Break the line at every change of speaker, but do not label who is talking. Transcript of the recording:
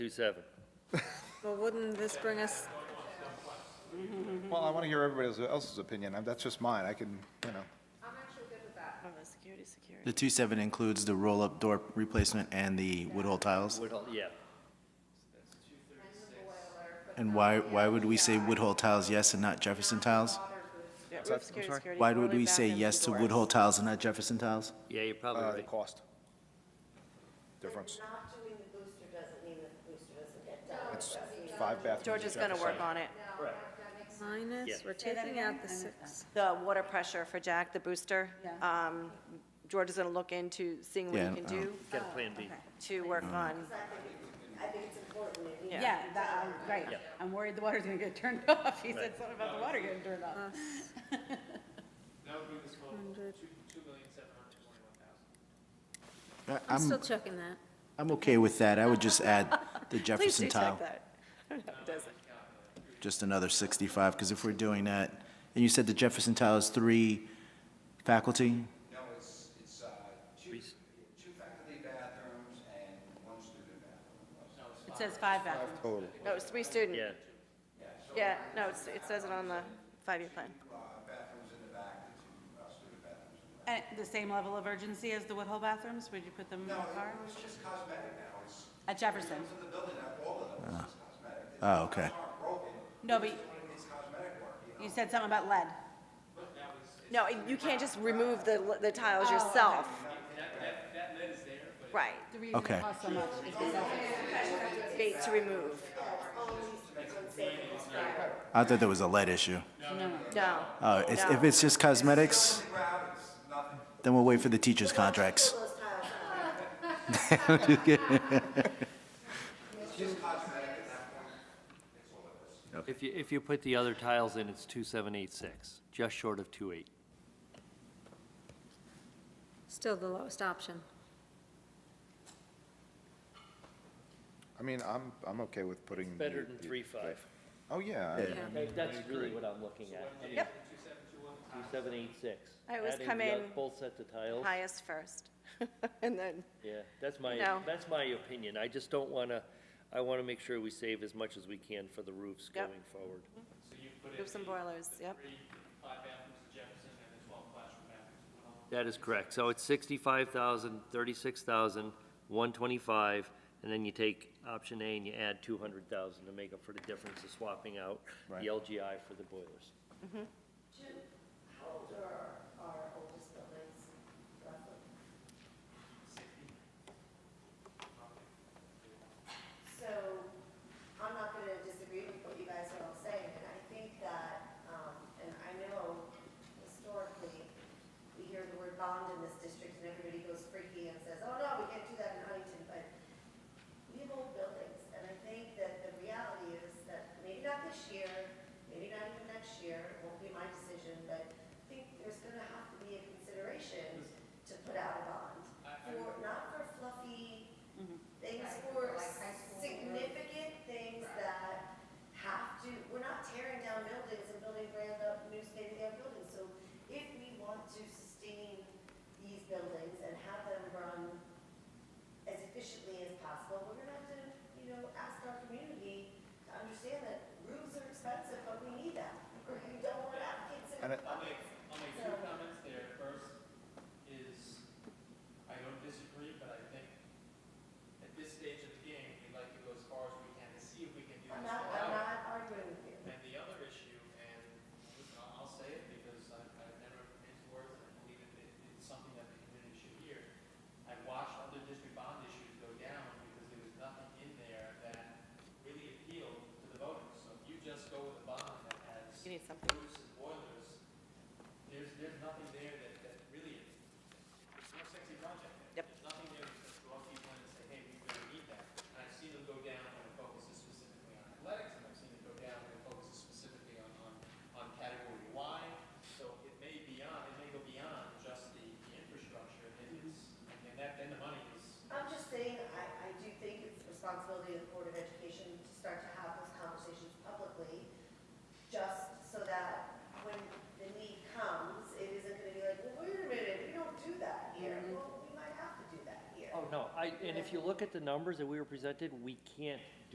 Two seven.
Well, wouldn't this bring us,
Well, I want to hear everybody else's opinion, and that's just mine, I can, you know.
Oh, the security, security.
The 2.7 includes the roll-up door replacement and the wood hole tiles?
Would, all- yeah.
And why, why would we say wood hole tiles yes and not Jefferson tiles?
Yeah, roof security, security.
Why would
only
we say
bathrooms and
yes to
doors.
wood hole tiles and not Jefferson tiles?
Yeah, you're probably
Uh, the
right.
cost. Difference.
Not doing the booster doesn't mean that the booster doesn't get done.
It's five bathrooms.
George is gonna work on it.
minus,
Yeah.
we're taking out the six.
The water pressure for Jack, the booster. um, George is gonna look into seeing what
Yeah,
he can
um,
do
Got a plan B.
to work on.
I think it's important, it needs
Yeah, that, I'm- right.
Yeah.
I'm worried the water's gonna get turned off. He said something about the water getting turned off.
That would bring this total to two, two million seven hundred twenty-one thousand.
I-
I'm
I'm,
still checking that.
I'm okay with that. I would just add the
Please do
Jefferson
check
tile,
that. I don't know, it doesn't.
just another 65, because if we're doing that, and you said the Jefferson tile is three faculty?
No, it's, it's, uh, two, two faculty bathrooms and one student bathroom.
It says five bathrooms.
Total.
No, it's three student.
Yeah.
Yeah, no, it's- it says it on the five-year plan.
Uh, bathrooms in the back, the two uh, student bathrooms. in the back.
At the same level of urgency as the Woodhull bathrooms? Would you put them in the
No,
car?
it was just cosmetic now, it's,
At Jefferson?
it's in the building, not all of them, it's just cosmetic. It's
Oh, okay.
not broken,
No, but
it's cosmetic work, you know?
you said something about lead.
No, you can't just remove the the tiles
Oh,
yourself. Right,
The reason
Okay.
it costs so much is because
bait to remove.
I thought there was a lead issue.
No.
Oh, it's- if it's just cosmetics, then we'll wait for the teachers' contracts.
If you, if you put the other tiles in, it's two seven eight six, just short of two eight.
Still the lowest option.
I mean, I'm, I'm okay with putting.
Better
the-
than
the-
three five.
Oh, yeah. I-
Yeah.
That's really what I'm looking at.
Yep.
Two seven eight six.
I always come in
Both sets uh, of tiles.
Highest first, and then,
Yeah, that's my,
No.
that's my opinion. I just don't want to, I want to make sure we save as much as we can for the roofs
Yep.
going forward.
So you put in
roofs and
the
boilers, yep.
three, five bathrooms at Jefferson and the twelve classroom bathrooms at Woodhull.
That is correct. So it's sixty-five thousand, thirty-six thousand, one twenty-five, and then you take option A and you add two hundred thousand to make up for the difference of swapping out
Right.
the LGI for the boilers.
Jim, how old are our oldest buildings roughly? So I'm not going to disagree with what you guys are all saying, and I think that, um, and I know historically, we hear the word bond in this district and everybody goes freaky and says, oh no, we can't do that in Huntington, but we have old buildings, and I think that the reality is that maybe not this year, maybe not even next year, it won't be my decision, but I think there's gonna have to be a consideration to put out a bond. For, not for fluffy things, for significant things that have to, we're not tearing down buildings and building brand up new state-of-the-art buildings. So if we want to sustain these buildings and have them run as efficiently as possible, we're gonna have to, you know, ask our community to understand that roofs are expensive, but we need them. We don't want applicants in
And it-
I'll make, I'll make two comments there. First is, I don't disagree, but I think at this stage of the game, we'd like to go as far as we can to see if we can do
I'm
this
not, I'm
without.
not arguing with you.
And the other issue, and listen, I'll- I'll say it because I- I've never put into words, and I believe it, it- it's something that the community should hear. I watched other district bond issues go down because there was nothing in there that really appealed to the voters. So if you just go with a bond that has
You need something.
roofs and boilers, there's, there's nothing there that, that really, it's no sexy project. there.
Yep.
There's nothing there that's go up to people and say, hey, we really need that. And I've seen them go down when it focuses specifically on athletics, and I've seen it go down when it focuses specifically on, on, on category Y. So it may beyond, it may go beyond just the, the infrastructure, and it's, and that, then the money is,
I'm just saying, I, I do think it's the responsibility of the Board of Education to start to have those conversations publicly, just so that when the need comes, it isn't gonna be like, well, wait a minute, we don't do that here. Well, we might have to do that here.
Oh, no, I, I, and if you look at the numbers that we were presented, we can't